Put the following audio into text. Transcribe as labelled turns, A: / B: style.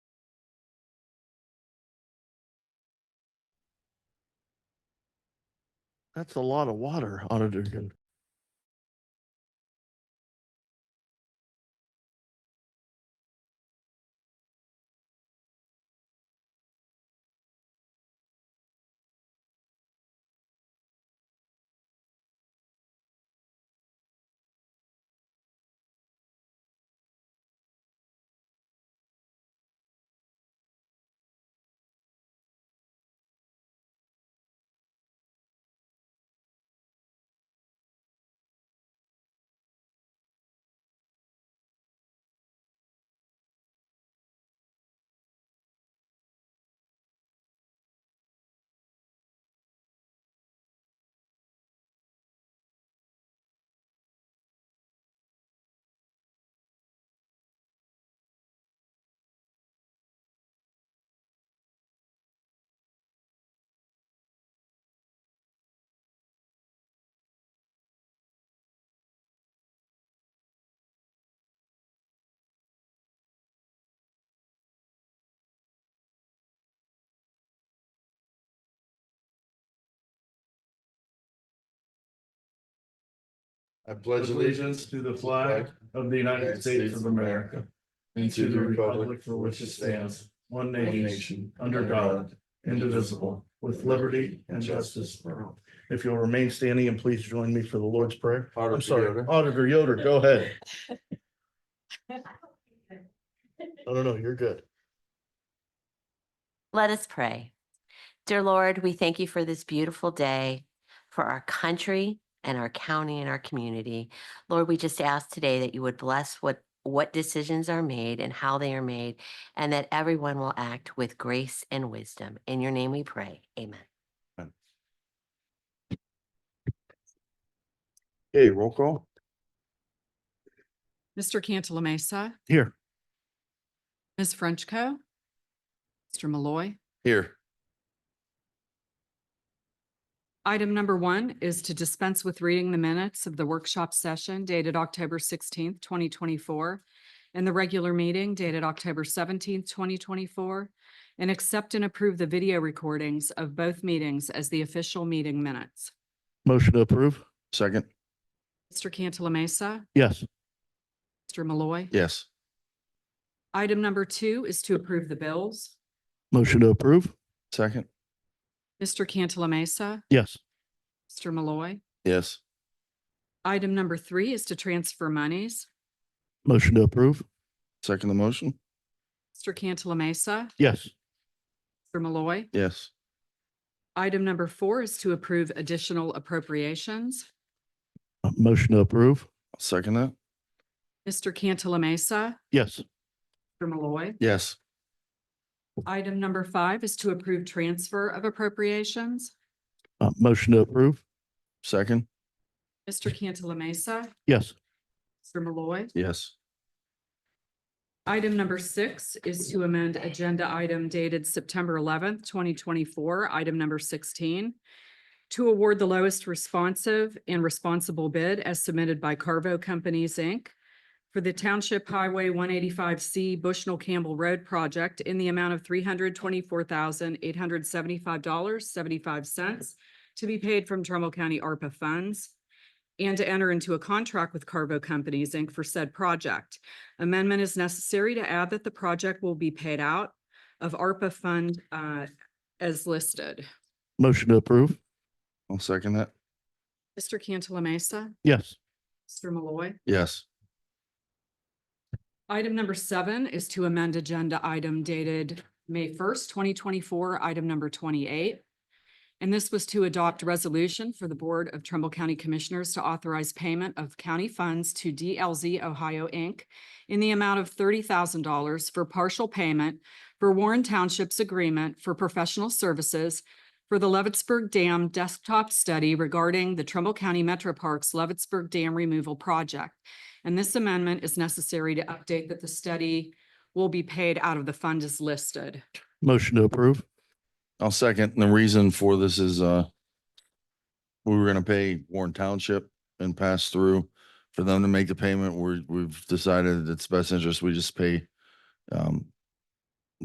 A: That's a lot of water, Auditor. Gun-
B: I pledge allegiance to the flag
C: of the United States of America and to the republic for which it stands, one nation, under God, indivisible, with liberty and justice for all.
A: If you'll remain standing and please join me for the Lord's Prayer.
B: Auditor
A: I'm sorry,
B: Yoder.
A: Auditor Yoder, go ahead. No, no, no, you're good.
D: Let us pray. Dear Lord, we thank you for this beautiful day, for our country and our county and our community. Lord, we just ask today that you would bless what what decisions are made and how they are made, and that everyone will act with grace and wisdom. In your name we pray. Amen.
A: Okay, roll call.
E: Mr. Cantala Mesa,
A: Here.
E: Ms. Frenchco. Mr. Malloy.
A: Here.
E: Item number one is to dispense with reading the minutes of the workshop session dated October sixteenth, twenty twenty-four, and the regular meeting dated October seventeenth, twenty twenty-four, and accept and approve the video recordings of both meetings as the official meeting minutes.
A: Motion to approve. Second.
E: Mr. Cantala Mesa,
A: Yes.
E: Mr. Malloy.
A: Yes.
E: Item number two is to approve the bills.
A: Motion to approve. Second.
E: Mr. Cantala Mesa,
A: Yes.
E: Mr. Malloy.
A: Yes.
E: Item number three is to transfer monies.
A: Motion to approve. Second the motion.
E: Mr. Cantala Mesa,
A: Yes.
E: Mr. Malloy.
A: Yes.
E: Item number four is to approve additional appropriations.
A: Uh, Motion to approve. Second that.
E: Mr. Cantala Mesa,
A: Yes.
E: Mr. Malloy.
A: Yes.
E: Item number five is to approve transfer of appropriations.
A: Uh, motion to approve. Second.
E: Mr. Cantala Mesa,
A: Yes.
E: Mr. Malloy.
A: Yes.
E: Item number six is to amend agenda item dated September eleventh, twenty twenty-four, item number sixteen, to award the lowest responsive and responsible bid as submitted by Carvo Companies, Inc. for the Township Highway one eighty-five C Bushnell Campbell Road project in the amount of three hundred twenty-four thousand, eight hundred seventy-five dollars, seventy-five cents to be paid from Trumbull County ARPA funds and to enter into a contract with Carvo Companies, Inc. for said project. Amendment is necessary to add that the project will be paid out of ARPA fund uh, as listed.
A: Motion to approve. I'll second that.
E: Mr. Cantala Mesa,
A: Yes.
E: Mr. Malloy.
A: Yes.
E: Item number seven is to amend agenda item dated May first, twenty twenty-four, item number twenty-eight. And this was to adopt resolution for the Board of Trumbull County Commissioners to authorize payment of county funds to DLZ Ohio, Inc. in the amount of thirty thousand dollars for partial payment for Warren Township's agreement for professional services for the Leavittsburg Dam desktop study regarding the Trumbull County Metro Parks Leavittsburg Dam Removal Project. And this amendment is necessary to update that the study will be paid out of the fund as listed.
A: Motion to approve.
B: I'll second. And the reason for this is, uh, we were gonna pay Warren Township and pass through for them to make the payment. We're, we've decided it's best interest. We just pay, um,